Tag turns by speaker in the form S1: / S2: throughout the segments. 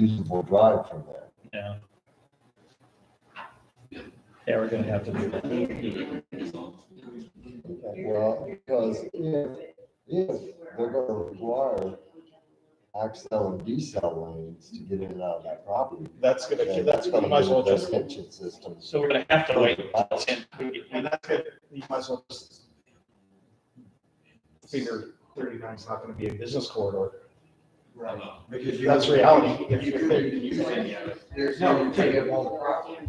S1: usable drive from there.
S2: Yeah. Yeah, we're gonna have to do that.
S1: Well, because if, if they're gonna require axle and decel lanes to get in and out of that property.
S3: That's gonna,
S1: then
S3: that's gonna,
S1: you
S3: might as well
S1: need
S3: just,
S1: Detention systems.
S2: So we're gonna have to wait until
S3: and that's good, you might as well just figure thirty-nine's not gonna be a business corridor. Right.
S4: Because you.
S3: That's reality.
S4: If you couldn't use any of it. There's no, take it on the property.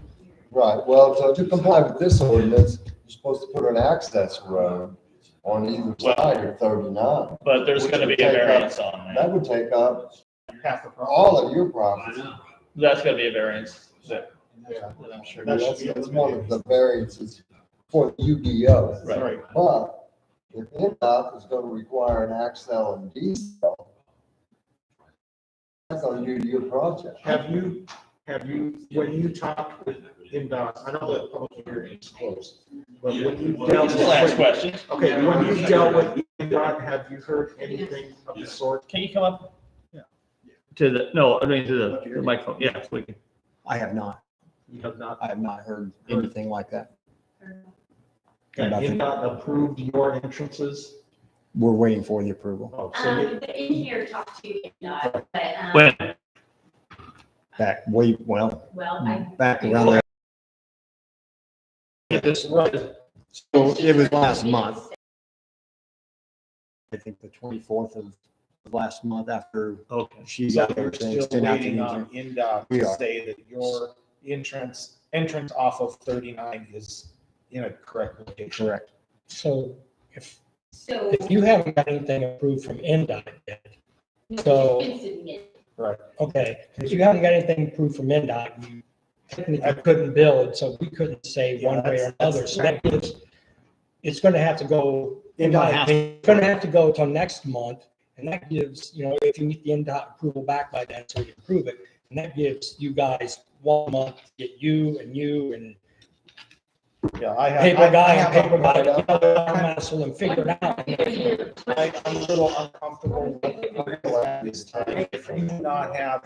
S1: Right, well, so to comply with this ordinance, you're supposed to put an access road on either side of thirty-nine.
S2: but there's gonna be a variance on that.
S1: That would take up
S3: Half the problem.
S1: all of your property.
S2: That's gonna be a variance that,
S3: Yeah.
S2: that I'm sure.
S3: That should
S1: That's
S3: be
S1: that's one of the variances for the UDO.
S2: Right.
S3: Right.
S1: But if NDOT is gonna require an axle and diesel, that's on you to your project.
S3: Have you, have you, when you talked with MDOT, I know that public hearing is closed, but when you dealt
S2: That's the last
S3: with,
S2: question.
S3: okay, when you dealt with MDOT, have you heard anything of the sort?
S2: Can you come up? To the, no, I mean, to the- the microphone, yeah, we can.
S5: I have not.
S3: You have not.
S5: I have not heard anything like that.
S3: And
S5: Nothing.
S3: MDOT approved your entrances?
S5: We're waiting for the approval
S3: Oh, so you-
S6: Um, the engineer talked to you, not, but, um,
S2: When?
S5: back, we, well,
S6: well, I,
S5: back around there.
S2: Get this right.
S5: So it was last month, I think the twenty-fourth of last month after
S2: Okay.
S5: she
S3: So
S5: got
S3: we're
S5: everything
S3: still
S5: sent out to
S3: waiting uh,
S5: me.
S3: on NDOT
S5: We
S3: to
S5: are.
S3: say that your entrance, entrance off of thirty-nine is in a correct location.
S5: Correct.
S7: So if,
S6: So.
S7: if you haven't got anything approved from NDOT yet, so-
S6: It's in it.
S7: okay, if you haven't got anything approved from NDOT, you technically couldn't build, so we couldn't say one way or another. So that gives, it's gonna have to go, in my opinion, it's gonna have to go till next month. And that gives, you know, if you need the NDOT approval back by then, so we approve it. And that gives you guys one month to get you and you and
S3: Yeah, I have.
S7: paper guy
S3: I- I
S7: and
S3: have a-
S7: paper guy, you know, I'm asking them to figure it out.
S3: I- I'm a little uncomfortable with the last this time. If you do not have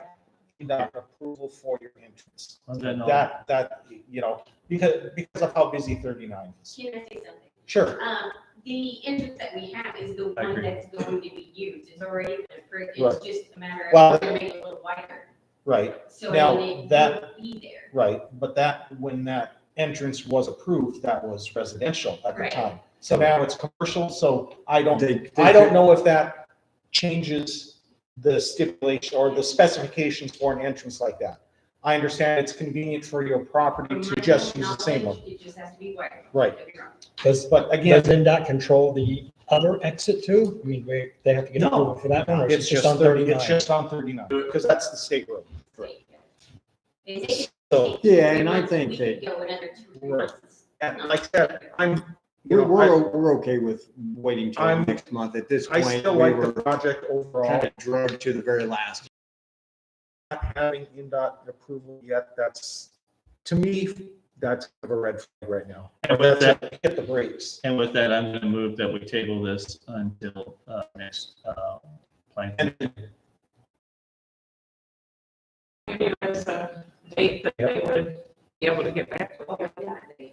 S3: NDOT approval for your entrance,
S2: uh,
S3: that, that, you know, because, because of how busy thirty-nine is.
S6: Can I say something?
S3: Sure.
S6: Um, the entrance that we have is the
S2: I
S6: one
S2: agree.
S6: that's going to be used. It's already been approved.
S3: Right.
S6: It's just a matter
S3: Well-
S6: of making it a little wider.
S3: Right,
S6: So
S3: Now,
S6: then it
S3: that-
S6: won't be there.
S3: right. But that, when that entrance was approved, that was residential at the
S6: Right.
S3: time. So now it's commercial, so I don't
S5: They- they-
S3: I don't know if that changes the stipulation or the specifications for an entrance like that. I understand it's convenient for your property to just use the same one.
S6: It just has to be wider.
S3: Right.
S6: Don't get me wrong.
S7: Because
S3: But again,
S7: Does NDOT control the other exit too? I mean, we, they have to get
S3: No.
S7: approval for that one, or
S3: it's
S7: is it
S3: just
S7: just on
S3: thirty, it's
S7: thirty-nine?
S3: just on thirty-nine, because that's the state road. Right.
S6: They say-
S3: So,
S5: Yeah, and I think
S6: We could
S5: that
S6: Go another two
S3: Right.
S6: months.
S3: and like I said, I'm, you
S5: we're,
S3: know,
S5: we're,
S3: I,
S5: o- we're okay with waiting till
S3: I'm-
S5: next month. At this
S3: I
S5: point, we
S3: still like the
S5: were
S3: project overall.
S5: kind of drugged to the very last.
S3: Not having NDOT approval yet, that's, to me, that's kind of a red flag right now.
S2: And with that,
S3: Hit the brakes.
S2: and with that, I'm gonna move that we table this until, uh, next, uh, plan.
S8: Maybe there's a date that they would be able to get back to. us.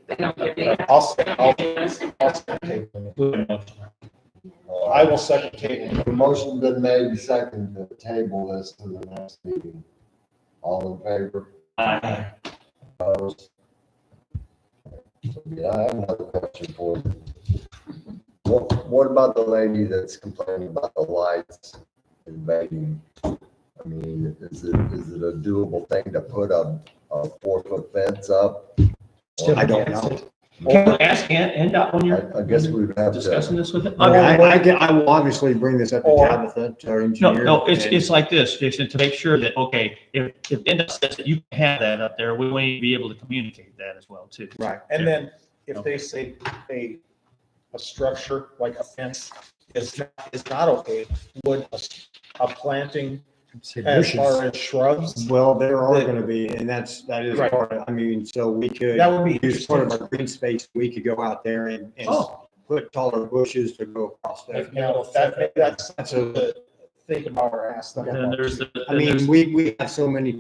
S8: They don't give me that.
S3: I'll, say- I'll, I'll second table. I will second table.
S1: The motion been made and seconded to table this to the next meeting. All in favor?
S2: Aye.
S1: Opposed? Yeah, I have another question for you. What, what about the lady that's complaining about the lights invading? I mean, is it, is it a doable thing to put a, a four-foot fence up?
S5: I don't know.
S2: Can we ask N, NDOT when you're
S1: I, I guess we would have to,
S2: discussing this with them?
S5: I mean, I, I, get- I will obviously bring this up to
S3: Or-
S5: Tabitha, to our
S2: No,
S5: engineer.
S2: no, it's,
S5: and-
S2: it's like this, Jason, to make sure that, okay, if, if NDOT says that you can have that up there, we want you to be able to communicate that as well too.
S5: Right.
S3: And then if they say a, a structure like a fence is, not is not okay, would a, s- a planting as far as shrubs,
S5: Well, there are
S3: The-
S5: gonna be, and that's, that is
S3: Right.
S5: part of, I mean, so we could.
S3: that would be
S5: use part of
S3: interesting.
S5: our green space, we could go out there and, and
S3: Oh.
S5: put taller bushes to go across there.
S3: You know, that, that's,
S5: That's a,
S3: the-
S9: think about or ask them.
S3: And then there's the.
S2: I mean, we, we have so many